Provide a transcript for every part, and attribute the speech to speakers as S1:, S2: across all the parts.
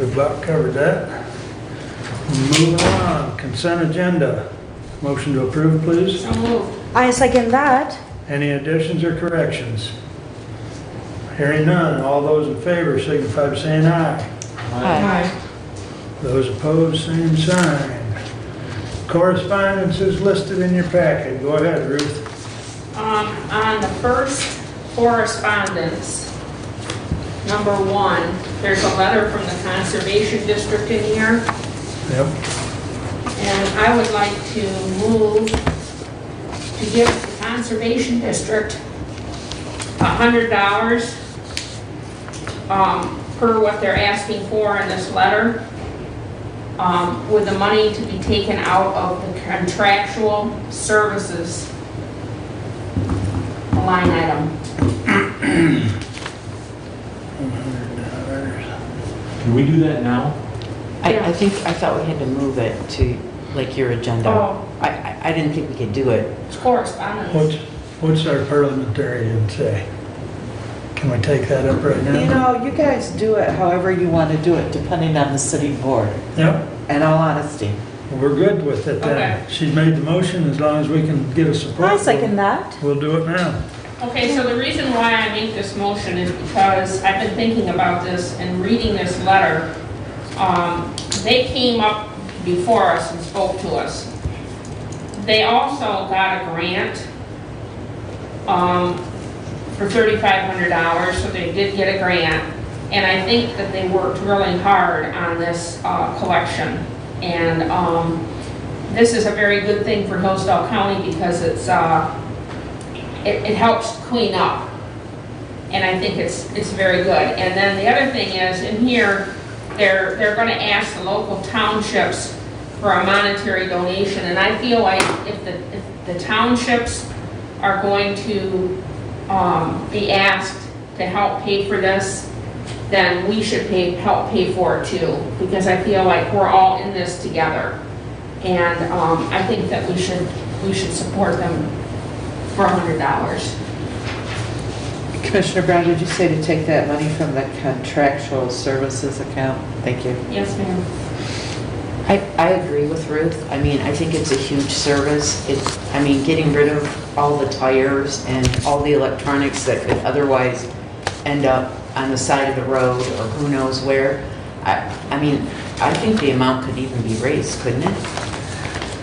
S1: We've about covered that. Moving on, consent agenda. Motion to approve, please.
S2: So moved.
S3: I second that.
S1: Any additions or corrections? Hearing none, all those in favor signify by saying aye. Those opposed, same sign. Correspondence is listed in your packet. Go ahead, Ruth.
S2: Um, on the first correspondence, number one, there's a letter from the Conservation District in here,
S1: Yep.
S2: and I would like to move to give the Conservation District a hundred dollars, um, per what they're asking for in this letter, um, with the money to be taken out of the contractual services line item.
S1: $100.
S4: Can we do that now?
S5: I, I think, I thought we had to move it to, like, your agenda.
S2: Oh.
S5: I- I, I didn't think we could do it.
S2: It's correspondence.
S1: What's, what's our parliamentarian say? Can we take that up right
S6: You
S1: now?
S6: know, you guys do it however you want to do it, depending on the city board,
S1: Yep,
S6: in all honesty.
S1: we're good with it then. She's made the motion, as long as we can get a support.
S3: I second that.
S1: We'll do it now.
S2: Okay, so the reason why I make this motion is because I've been thinking about this and reading this letter. Um, They came up before us and spoke to us. They also got a grant um, for $3,500, so they did get a grant. And I think that they worked really hard on this uh, collection. And um, this is a very good thing for Hillsdale County because it's, uh, it, it helps clean up. And I think it's, it's very good. And then the other thing is, in here, they're, they're gonna ask the local townships for a monetary donation. And I feel like if the, if the townships are going to, um, be asked to help pay for this, then we should pay, help pay for it too. Because I feel like we're all in this together. And, um, I think that we should, we should support them for hundred dollars.
S6: Commissioner Brown, did you say to take that money from the contractual services account? Thank you.
S2: Yes, ma'am.
S5: I, I agree with Ruth. I mean, I think it's a huge service. It's, I mean, getting rid of all the tires and all the electronics that could otherwise end up on the side of the road or who knows where. I, I mean, I think the amount could even be raised, couldn't it?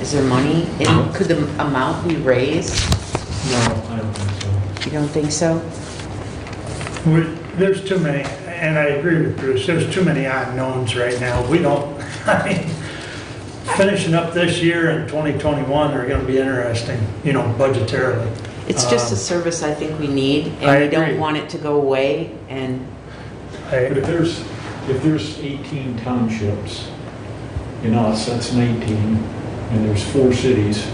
S5: Is there money? in- Could the amount be raised?
S4: No, I don't think so.
S5: You don't think so?
S1: We- There's too many, and I agree with Bruce, there's too many unknowns right now. We don't, I mean, finishing up this year and 2021 are going to be interesting, you know, budgetarily.
S5: It's just a
S1: Um,
S5: service I think we need,
S1: I
S5: and we
S1: agree.
S5: don't want it to go away, and
S4: But
S1: I-
S4: if there's, if there's 18 townships in us, that's 19, and there's four cities,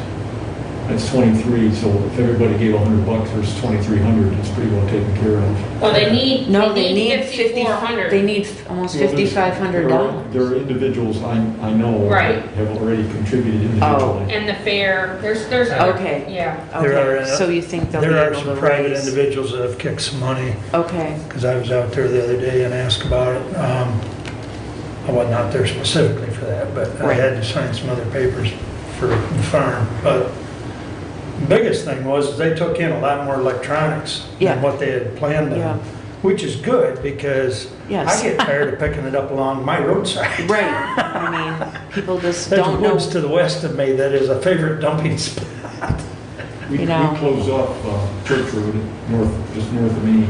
S4: that's 23, so if everybody gave 100 bucks, there's 2,300, it's pretty well taken care of.
S2: Well, Oh, they need,
S5: no, they need 50,
S2: fifty-four
S5: they
S2: hundred.
S5: need almost
S4: Well, there's- there are- There
S5: $5,500.
S4: are individuals I, I know.
S2: Right.
S4: that Have already contributed individually.
S2: And the fair, there's, there's other,
S5: Okay.
S2: yeah.
S1: There are, uh,
S5: Okay, so you think they'll be
S1: There are
S5: able to
S1: some private
S5: raise?
S1: individuals that have kicked some money,
S5: Okay,
S1: because I was out there the other day and asked about it. Um, I wasn't out there specifically for that, but I
S5: Right.
S1: had to sign some other papers for the farm. But the biggest thing was they took in a lot more electronics
S5: Yeah.
S1: than what they had planned
S5: Yeah.
S1: on, which is good because I
S5: Yes.
S1: get tired of picking it up along my roadside.
S5: right, I mean, people just
S1: There's
S5: don't know.
S1: woods to the west of me that is a favorite dumping spot.
S4: We, we
S5: You know.
S4: closed off uh, Church Road, north, just north of me,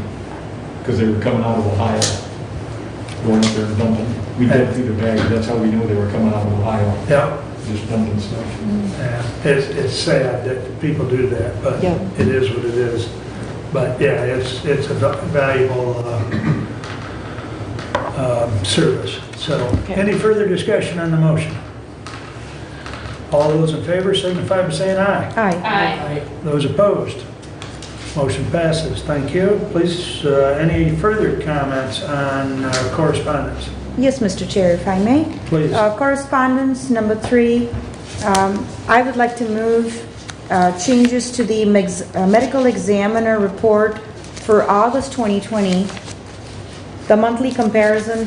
S4: because they were coming out of Ohio, going up there and dumping. We dug through the bag, that's how we knew they were coming out of Ohio,
S1: Yep.
S4: just dumping stuff.
S1: Yeah, It's, it's sad that people do that, but
S5: Yeah.
S1: it is what it is. But yeah, it's, it's a va- valuable uh, um, service. So,
S5: Okay.
S1: any further discussion on the motion? All those in favor signify by saying aye.
S3: Aye.
S2: Aye.
S1: Those opposed? Motion passes. Thank you. Please, uh, any further comments on uh, correspondence?
S3: Yes, Mr. Chair, if I may.
S1: Please.
S3: Uh, Correspondence number three, um, I would like to move uh, changes to the mex- uh, medical examiner report for August 2020, the monthly comparison